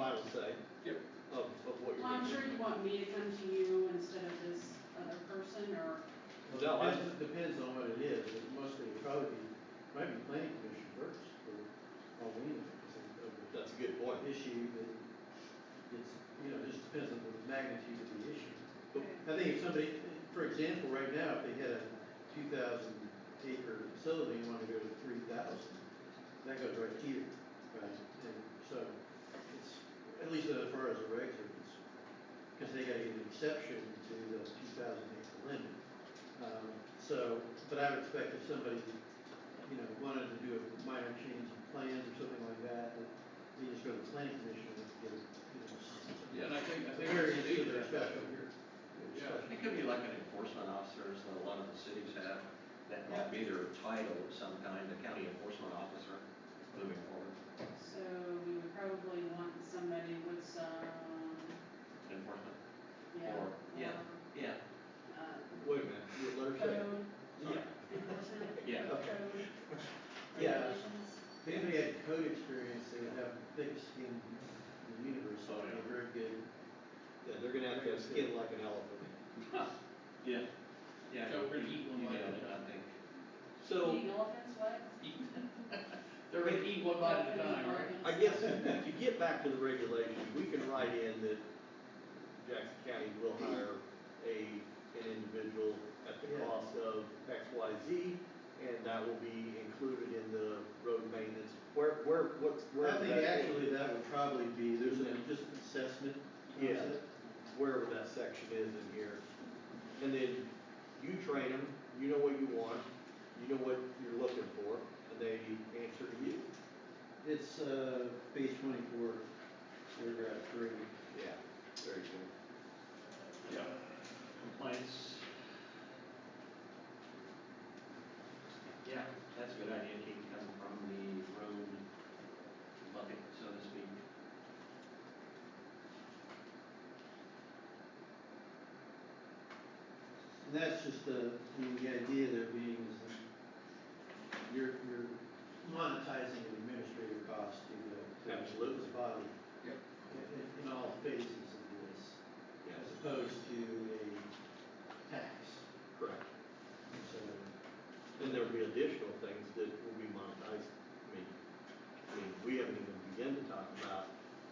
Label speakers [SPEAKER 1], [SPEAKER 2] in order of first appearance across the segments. [SPEAKER 1] I would say,
[SPEAKER 2] Yep.
[SPEAKER 1] of, of what you're.
[SPEAKER 3] Well, I'm sure you want me to come to you instead of this other person, or,
[SPEAKER 1] No,
[SPEAKER 4] Well,
[SPEAKER 1] I-
[SPEAKER 4] it depends, it depends on what it is, it mostly would probably be, maybe planning commission first, for all we know, because of the
[SPEAKER 1] That's a good point.
[SPEAKER 4] issue that it's, you know, just depends on the magnitude of the issue. But
[SPEAKER 3] Okay.
[SPEAKER 4] I think if somebody, for example, right now, if they had a two thousand acre facility and wanted to go to three thousand, that goes right here, right? And so it's, at least as far as the regs are concerned, because they gotta get an exception to the two thousand acre limit. Um, so, but I would expect if somebody, you know, wanted to do a minor change in plans or something like that, that they just go to the planning commission and get, a, you know, s-
[SPEAKER 2] Yeah, and I think, I
[SPEAKER 4] a
[SPEAKER 2] think.
[SPEAKER 4] variance
[SPEAKER 2] it's
[SPEAKER 4] to their
[SPEAKER 2] needed.
[SPEAKER 4] special here.
[SPEAKER 2] Yeah.
[SPEAKER 4] Special.
[SPEAKER 5] It could be like an enforcement officer, so a lot of the cities have, that might be their title of some kind, the county enforcement officer, moving forward,
[SPEAKER 3] so we would probably want somebody with some,
[SPEAKER 5] enforcement.
[SPEAKER 3] yeah.
[SPEAKER 5] Or- yeah. Yeah,
[SPEAKER 3] uh,
[SPEAKER 1] Wait a minute, your letter said.
[SPEAKER 3] Code
[SPEAKER 5] yeah,
[SPEAKER 3] enforcement.
[SPEAKER 5] Yeah.
[SPEAKER 3] Code
[SPEAKER 4] Yeah.
[SPEAKER 3] regulations.
[SPEAKER 4] If anybody had code experience, they would have the thickest skin in the universe,
[SPEAKER 1] Oh,
[SPEAKER 4] so they're very good.
[SPEAKER 1] Yeah, they're gonna have to have skin like an elephant.
[SPEAKER 5] yeah, yeah.
[SPEAKER 2] Yeah, we're gonna eat one
[SPEAKER 5] You
[SPEAKER 2] bite
[SPEAKER 5] nailed
[SPEAKER 2] at a
[SPEAKER 5] it,
[SPEAKER 2] time.
[SPEAKER 5] I think.
[SPEAKER 1] So,
[SPEAKER 3] Eating elephants, what?
[SPEAKER 2] They're gonna eat one bite at a time, right?
[SPEAKER 1] I guess to get back to the regulations, we can write in that Jackson County will hire a, an individual at the
[SPEAKER 4] Yeah.
[SPEAKER 1] cost of X, Y, Z, and that will be included in the road maintenance, where, where, what's, where?
[SPEAKER 4] I think
[SPEAKER 1] that-
[SPEAKER 4] actually that would probably be, there's an, just an assessment
[SPEAKER 1] Yeah.
[SPEAKER 4] concept.
[SPEAKER 1] Wherever that section is in here, and then you train them, you know what you want, you know what you're looking for, and they answer to you.
[SPEAKER 4] It's, uh, page twenty-four, paragraph three.
[SPEAKER 1] Yeah, very cool.
[SPEAKER 2] Yeah. Complaints.
[SPEAKER 5] Yeah, that's a good idea, it can come from the road bucket, so to speak.
[SPEAKER 4] And that's just the, I mean, the idea there being is that you're, you're monetizing an administrative cost to the, to the
[SPEAKER 1] Absolutely.
[SPEAKER 4] body.
[SPEAKER 2] Yep.
[SPEAKER 4] In, in all phases of this,
[SPEAKER 1] Yes,
[SPEAKER 4] as opposed to a tax,
[SPEAKER 1] correct.
[SPEAKER 4] so.
[SPEAKER 1] Then there'll be additional things that will be monetized. I mean, I mean, we haven't even begun to talk about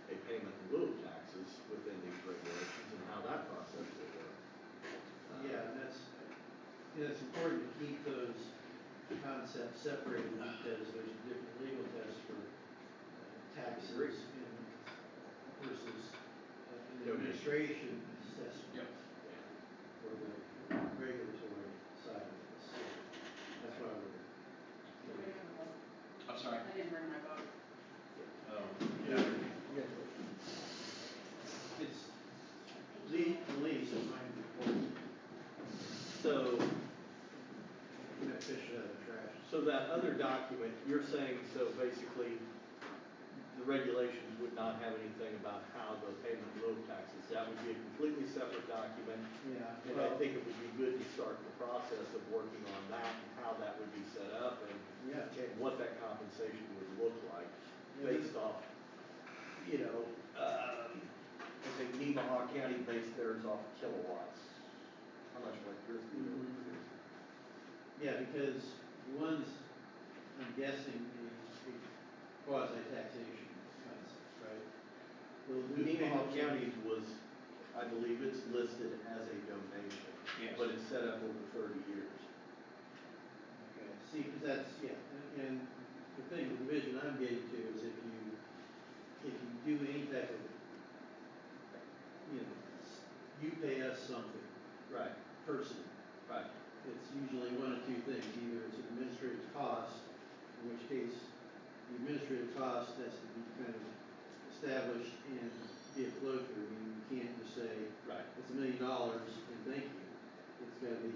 [SPEAKER 1] a payment in lieu of taxes within these regulations and how that process will work. Uh,
[SPEAKER 4] Yeah, and that's, you know, it's important to keep those concepts separated because there's a different legal test for uh,
[SPEAKER 1] Agreed.
[SPEAKER 4] taxes and versus uh, an
[SPEAKER 1] Donation.
[SPEAKER 4] administration assessment.
[SPEAKER 2] Yep.
[SPEAKER 1] yeah.
[SPEAKER 4] for the regulatory side of this. So That's why we're.
[SPEAKER 5] I'm sorry.
[SPEAKER 3] I didn't bring my book.
[SPEAKER 5] Oh,
[SPEAKER 4] Yeah. It's the, the lease is mine before,
[SPEAKER 1] So,
[SPEAKER 4] you know, fish it out of the trash.
[SPEAKER 1] so that other document, you're saying, so basically, the regulations would not have anything about how the payment in lieu of taxes. That would be a completely separate document.
[SPEAKER 4] Yeah,
[SPEAKER 1] And I
[SPEAKER 4] well,
[SPEAKER 1] think it would be good to start the process of working on that and how that would be set up and
[SPEAKER 4] yeah,
[SPEAKER 1] and what that compensation would look like
[SPEAKER 4] Yeah.
[SPEAKER 1] based off, you know, uh, I think Nemaha County based theirs off kilowatts. How much like yours do you
[SPEAKER 4] Mhm.
[SPEAKER 1] produce?
[SPEAKER 4] yeah, because one's, I'm guessing, the quasi taxation concept, right? Well,
[SPEAKER 1] Nemaha County was, I believe it's listed as a donation,
[SPEAKER 5] yes.
[SPEAKER 1] but it's set up over thirty years.
[SPEAKER 4] Okay, see, 'cause that's, yeah, and the thing, the vision I'm getting to is if you, if you do any type of, you know, s- you pay us something,
[SPEAKER 1] Right,
[SPEAKER 4] person,
[SPEAKER 1] right.
[SPEAKER 4] it's usually one of two things, either it's an administrative cost, in which case the administrative cost has to be kind of established and be a flow through, I mean, you can't just say,
[SPEAKER 1] Right.
[SPEAKER 4] it's a million dollars and thank you. It's gotta be,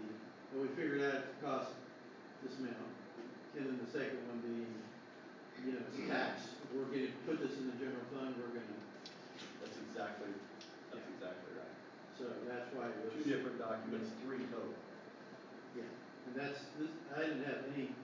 [SPEAKER 4] well, we figured out it costs this amount. And then the second one being, you know, it's tax. We're gonna put this in the general fund, we're gonna,
[SPEAKER 1] That's exactly, that's exactly right.
[SPEAKER 4] so that's why it was.
[SPEAKER 1] Two different documents, three total.
[SPEAKER 4] Yeah, and that's, this, I didn't have any